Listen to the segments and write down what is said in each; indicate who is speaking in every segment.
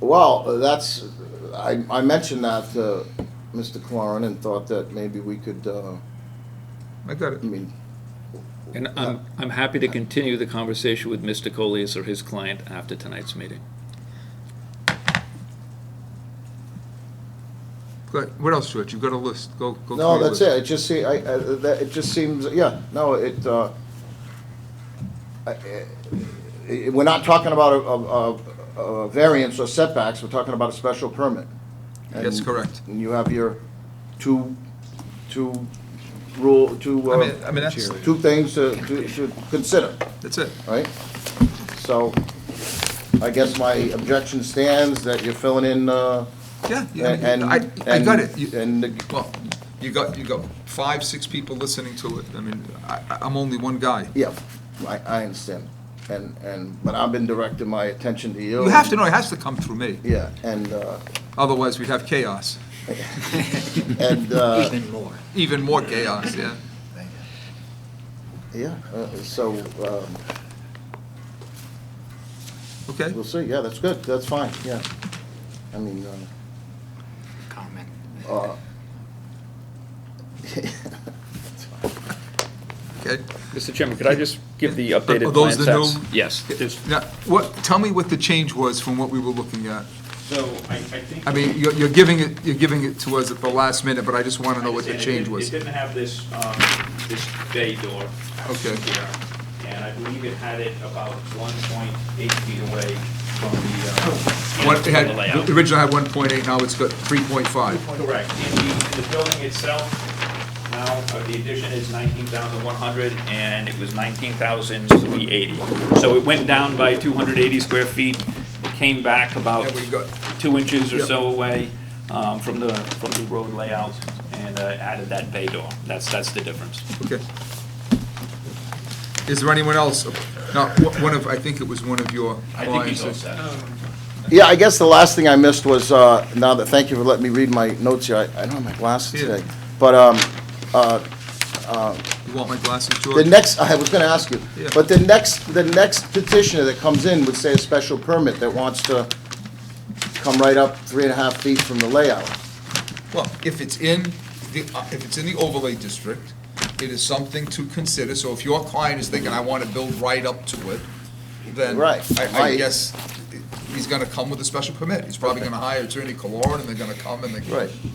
Speaker 1: Well, that's, I, I mentioned that to Mr. Cloran and thought that maybe we could, uh,
Speaker 2: I got
Speaker 1: I
Speaker 2: it.
Speaker 1: mean,
Speaker 3: And I'm, I'm happy to continue the conversation with Mr. Colias or his client after tonight's meeting.
Speaker 2: Good. What else, George? You've got a list. Go,
Speaker 1: no,
Speaker 2: go. through your
Speaker 1: that's
Speaker 2: list.
Speaker 1: it, it just see, I, I, that, it just seems, yeah, no, it, uh, I- I- I- we're not talking about a, a, a- a variance or setbacks, we're talking about a special permit.
Speaker 2: That's
Speaker 1: And-
Speaker 2: correct.
Speaker 1: And you have your two, two rule, two,
Speaker 2: I
Speaker 1: uh,
Speaker 2: mean, I mean, that's,
Speaker 1: two things to, to, to consider.
Speaker 2: that's it.
Speaker 1: right? So I guess my objection stands that you're filling in, uh,
Speaker 2: Yeah. yeah,
Speaker 1: and.
Speaker 2: I, I got it. You-
Speaker 1: And, the-
Speaker 2: Well, you got, you got five, six people listening to it. I mean, I, I- I'm only one guy.
Speaker 1: yeah, I, I understand. And, and, but I've been directing my attention to you.
Speaker 2: You have to know, it has to come through me,
Speaker 1: Yeah, and, uh,
Speaker 2: otherwise we'd have chaos,
Speaker 1: and, uh,
Speaker 4: Even more.
Speaker 2: even more chaos, yeah.
Speaker 4: Thank you.
Speaker 1: yeah, uh, so, um,
Speaker 2: Okay?
Speaker 1: we'll see. Yeah, that's good. That's fine, yeah. I mean, uh,
Speaker 4: Comment.
Speaker 1: uh,
Speaker 2: Okay?
Speaker 3: Mr. Chairman, could I just give the updated
Speaker 2: Are those
Speaker 3: plan
Speaker 2: the
Speaker 3: sets?
Speaker 2: new-
Speaker 3: Yes, just-
Speaker 2: Now, what, tell me what the change was from what we were looking at.
Speaker 5: So I, I think.
Speaker 2: I mean, you're, you're giving it, you're giving it to us at the last minute, but I just want to know what the
Speaker 5: It
Speaker 2: change
Speaker 5: didn't- It
Speaker 2: was.
Speaker 5: didn't have this, um, this bay door.
Speaker 2: Okay.
Speaker 5: here, And I believe it had it about one point eight feet away from the, uh.
Speaker 2: One, it had,
Speaker 5: the layout.
Speaker 2: the original had one point eight, now it's got three point five.
Speaker 5: Correct. In the, in the building itself, now, uh, the addition is nineteen thousand one hundred, and it was nineteen thousand three eighty. So it went down by two hundred eighty square feet, it came back about
Speaker 2: And we got-
Speaker 5: two inches or
Speaker 2: Yep.
Speaker 5: so away, um, from the, from the road layout, and, uh, added that bay door. That's, that's the difference.
Speaker 2: Okay. Is there anyone else? Now, wh- one of, I think it was one of your
Speaker 5: I think he's all
Speaker 2: clients.
Speaker 5: set.
Speaker 1: Yeah, I guess the last thing I missed was, uh, now that, thank you for letting me read my notes here, I I don't have my glasses
Speaker 2: Yeah.
Speaker 1: today. But um,
Speaker 2: You want my glasses,
Speaker 1: the
Speaker 2: George?
Speaker 1: next, I was gonna ask you,
Speaker 2: Yeah.
Speaker 1: but the next, the next petitioner that comes in would say a special permit that wants to come right up three and a half feet from the layout.
Speaker 2: Well, if it's in, the uh, if it's in the overlay district, it is something to consider. So if your client is thinking, I want to build right up to it, then
Speaker 1: Right,
Speaker 2: I I
Speaker 1: right.
Speaker 2: guess he's going to come with a special permit. He's probably going to hire Attorney Cologne, and they're going to come and they.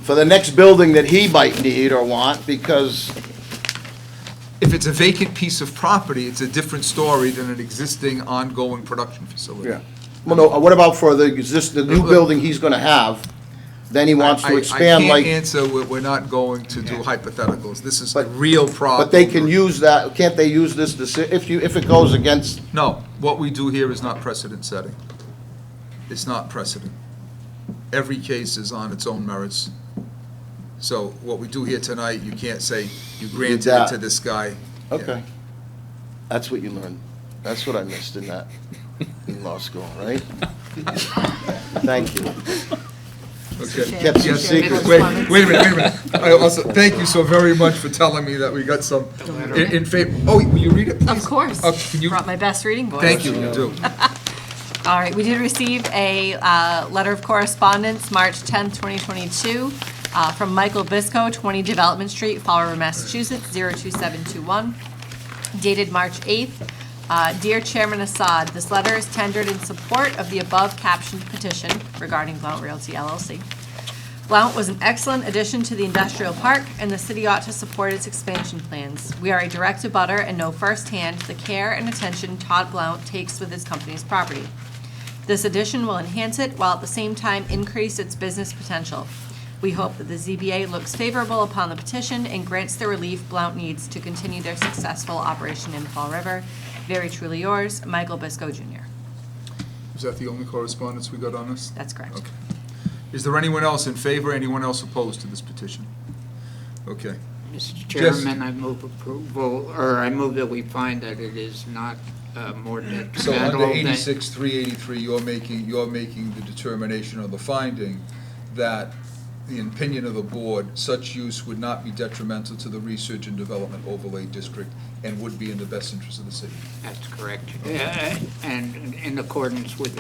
Speaker 1: For the next building that he might need or want, because,
Speaker 2: If it's a vacant piece of property, it's a different story than an existing ongoing production facility.
Speaker 1: yeah. Well, no, what about for the, exist the new
Speaker 2: Uh, uh,
Speaker 1: building he's gonna have? Then he wants
Speaker 2: I- I-
Speaker 1: to expand
Speaker 2: I can't
Speaker 1: like,
Speaker 2: answer, we're, we're not going to do hypotheticals, this is the
Speaker 1: But-
Speaker 2: real problem.
Speaker 1: but they can use that, can't they use this, deci- if you, if it goes against
Speaker 2: No, what we do here is not precedent setting. It's not precedent. Every case is on its own merits. So what we do here tonight, you can't say, you granted it to
Speaker 1: that.
Speaker 2: this guy. Yeah.
Speaker 1: Okay. That's what you learned. That's what I missed in that, in law school, right? Thank you.
Speaker 2: Okay.
Speaker 1: Kept some
Speaker 2: Yes.
Speaker 1: secrets.
Speaker 2: Wait, wait a minute, wait a minute. I also, thank you so very much for telling me that we got some in in favor. Oh, will you read it, please?
Speaker 6: Of course.
Speaker 2: Oh, can you-
Speaker 6: Brought my best reading voice.
Speaker 2: Thank you, you do.
Speaker 6: All right, we did receive a uh, letter of correspondence, March 10th, 2022, uh, from Michael Bisco, 20 Development Street, Fall River, Massachusetts, 02721, dated March 8th. Uh, Dear Chairman Assad, this letter is tendered in support of the above captioned petition regarding Blount Realty LLC. Blount was an excellent addition to the industrial park, and the city ought to support its expansion plans. We are a direct abutter and know firsthand the care and attention Todd Blount takes with his company's property. This addition will enhance it while at the same time increase its business potential. We hope that the ZBA looks favorable upon the petition and grants the relief Blount needs to continue their successful operation in Fall River. Very truly yours, Michael Bisco Jr.
Speaker 2: Is that the only correspondence we got on this?
Speaker 6: That's correct.
Speaker 2: Okay. Is there anyone else in favor, anyone else opposed to this petition? Okay.
Speaker 4: Mr. Chairman, I move approval, or I move that we find that it is not uh, more
Speaker 2: So under
Speaker 4: detrimental than.
Speaker 2: eighty-six, three eighty-three, you're making, you're making the determination or the finding that the opinion of the board, such use would not be detrimental to the research and development overlay district and would be in the best interest of the city.
Speaker 4: That's correct. Uh, And in accordance with